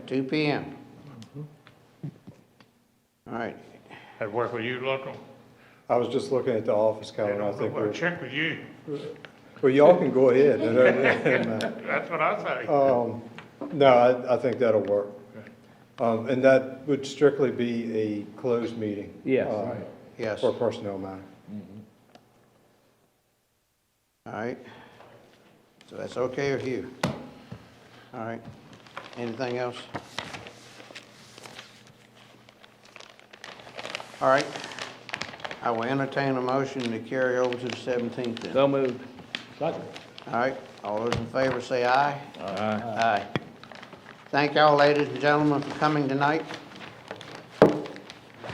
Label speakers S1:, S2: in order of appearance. S1: two P M. All right,
S2: That work with you, local?
S3: I was just looking at the office calendar, I think
S2: Well,
S3: we're,
S2: check with you.
S3: well, y'all can go ahead.
S2: That's what I say.
S3: Um, No, I, I think that'll work. Um, and that would strictly be a closed meeting.
S4: Yes.
S3: uh,
S1: yes,
S3: For
S1: all
S3: personnel matter.
S1: right. So that's okay with you? All right, anything else? All right, I will entertain a motion to carry over to the seventeenth then.
S4: So moved. Second.
S1: All right, all those in favor say aye. Aye. Aye. Thank y'all, ladies and gentlemen, for coming tonight.